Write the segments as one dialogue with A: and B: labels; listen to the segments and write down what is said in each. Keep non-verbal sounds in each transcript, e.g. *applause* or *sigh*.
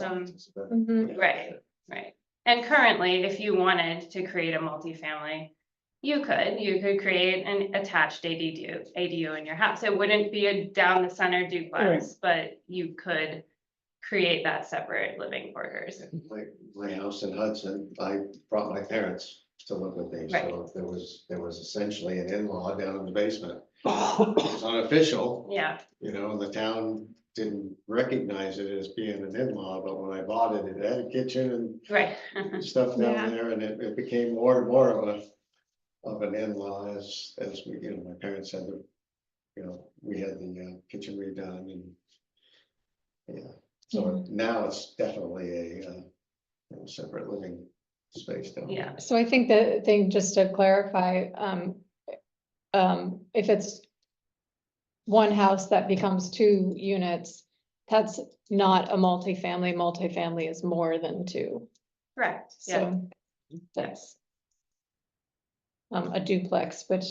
A: some, Mm,
B: It's about-
C: Mhm.
A: right, right. And currently, if you wanted to create a multifamily, you could, you could create an attached ADU, ADU in your house. It wouldn't be a down the center duplex, but you could create that separate living quarters.
B: My, my house in Hudson, I brought my parents to live with me, so
A: Right.
B: there was, there was essentially an in-law down in the
A: *laughs*
B: basement. It's unofficial,
A: Yeah,
B: you know, the town didn't recognize it as being an in-law, but when I bought it, it had a kitchen
A: right.
B: and stuff
C: Yeah.
B: down there, and it, it became more and more of a. Of an in-law as, as we, you know, my parents had the, you know, we had the uh, kitchen redone and. Yeah, so now it's definitely a, uh, you know, separate living space down. there.
A: Yeah,
C: So I think the thing, just to clarify, um, um, if it's one house that becomes two units, that's not a multifamily. Multifamily is more than two.
A: correct, yeah,
C: So that's um, a duplex, which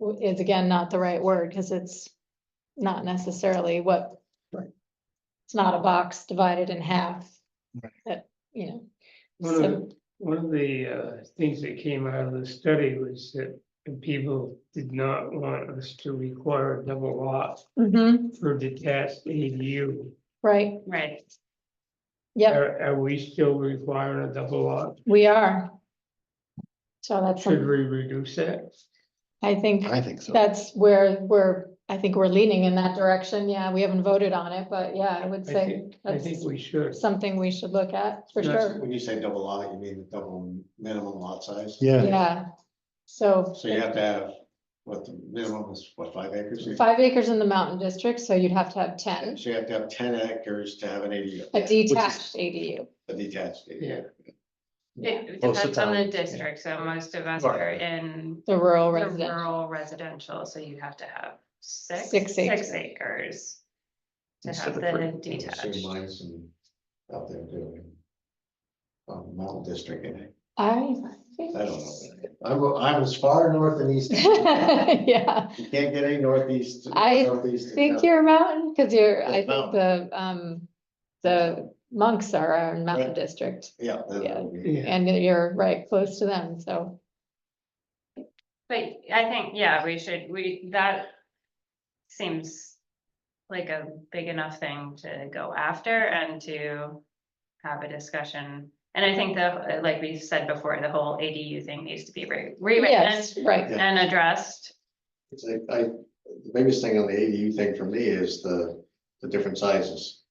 C: w- is again not the right word because it's not necessarily what
B: Right.
C: it's not a box divided in half.
D: Right.
C: That, you know.
E: One of,
C: so-
E: the- one of the uh things that came out of the study was that the people did not want us to require a double lot
C: Mhm,
E: for detached ADU.
C: right,
A: right.
C: yep,
E: Are, are we still requiring a double lot?
C: we are. So that's,
E: Should
C: some-
E: we reduce that?
C: I think
D: I think so.
C: that's where we're, I think we're leaning in that direction. Yeah, we haven't voted on it, but yeah, I would
E: I
C: say
E: think, I
C: that's
E: think we should.
C: something we should look at for
E: That's-
C: sure.
B: When you say double lot, you mean the double minimum lot size?
D: Yeah,
C: Yeah, so.
B: So you have to have, what the minimum is, what, five acres? You-
C: Five acres in the mountain district, so you'd have to have ten,
B: So you have to have ten acres to have an ADU,
C: a detached ADU.
B: a detached ADU.
E: Yeah,
A: It
D: Most of
A: depends on
D: the
A: the
D: time, yeah.
A: district, so most of us
B: Right.
A: are in
C: The rural
A: the
C: residential,
A: rural residential, so you have to have six,
C: Six
A: six
C: acres.
A: acres. To have the
B: I would assume
A: detached,
B: mine's in- out there doing. Um, mountain district in it,
C: I think.
B: I don't know, I'm, I'm as far north and
C: *laughs*
B: east, as you can.
C: Yeah,
B: you can't get any northeast.
C: I
B: northeast in
C: think
B: town.
C: you're a mountain, cause you're, I
B: It's
C: think the, um, the monks are our mountain
B: Right.
C: district.
B: Yeah. that
C: yeah.
B: would be-
E: yeah,
C: And you're right, close to them, so,
A: but I think, yeah, we should, we, that seems. Like a big enough thing to go after and to have a discussion. And I think the, like we said before, the whole ADU thing needs to be re- rewritten
C: yes, right, *laughs*
B: Yeah.
A: and addressed.
B: It's like, I, the biggest thing on the ADU thing for me is the, the different sizes.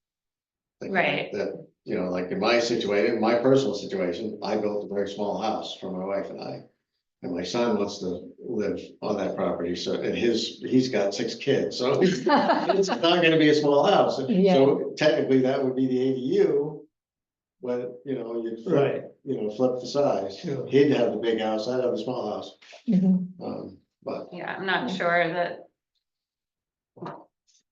B: Like,
A: Right.
B: That, you know, like in my situation, my personal situation, I built a very small house for my wife and I. And my son wants to live on that property, so, and his, he's got six kids, so *laughs* it's not gonna be a small house.
C: Yeah.
B: So technically, that would be the ADU. But, you know, you,
E: right,
B: you know, flip the size.
E: Sure.
B: He'd have the big house, I'd have the small house,
C: Mhm.
B: um, but.
A: Yeah, I'm not
C: Yeah.
A: sure that.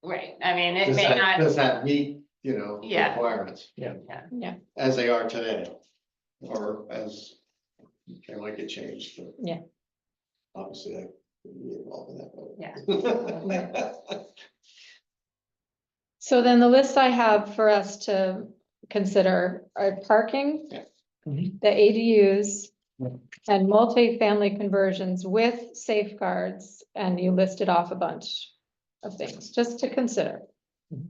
A: Right, I mean, it
B: Does
A: may
B: that-
A: not,
B: Does that meet, you know,
A: Yeah.
B: requirements?
C: yeah,
B: As they are today, or as, they might get changed, but.
C: Yeah.
B: Obviously, I would be involved in that. but-
A: yeah,
B: *laughs*
C: so then the list I have for us to consider are parking.
B: Yeah.
E: Mhm.
C: The ADUs
D: Yeah.
C: and multifamily conversions with safeguards, and you listed off a bunch of things, just to consider.
D: Mhm.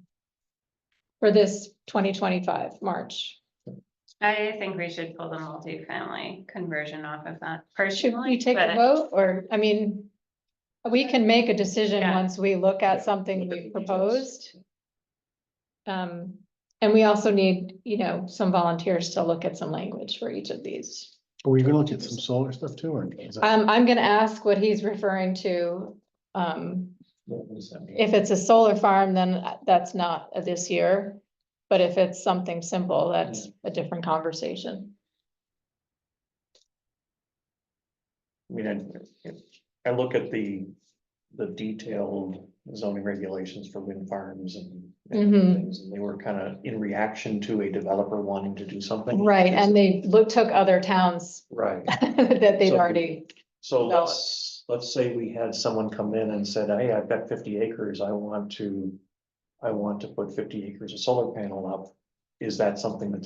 C: For this twenty twenty-five March,
A: I think we should pull the multifamily conversion off of that
C: should
A: personally,
C: we take a
A: but
C: vote, or, I mean, we can make a decision
A: Yeah.
C: once we look
B: Yeah.
C: at something we proposed. Um, and we also need, you know, some volunteers to look at some language for each of these.
D: are we gonna look at some solar stuff too, or? is that-
C: Um, I'm gonna ask what he's referring to. Um,
D: what does that mean?
C: if it's a solar farm, then that's not a this year. But if it's something simple, that's a different conversation.
F: I mean, I- I look at the, the detailed zoning regulations for wind farms and. and
C: Mhm.
F: things, And they were kind of in reaction to a developer wanting to do something.
C: Right, and they look, took other towns *laughs*
F: Right,
C: that they'd
F: So-
C: already,
F: so
C: Valid.
F: let's, let's say we had someone come in and said, hey, I've got fifty acres, I want to. I want to put fifty acres of solar panel up. Is that something that's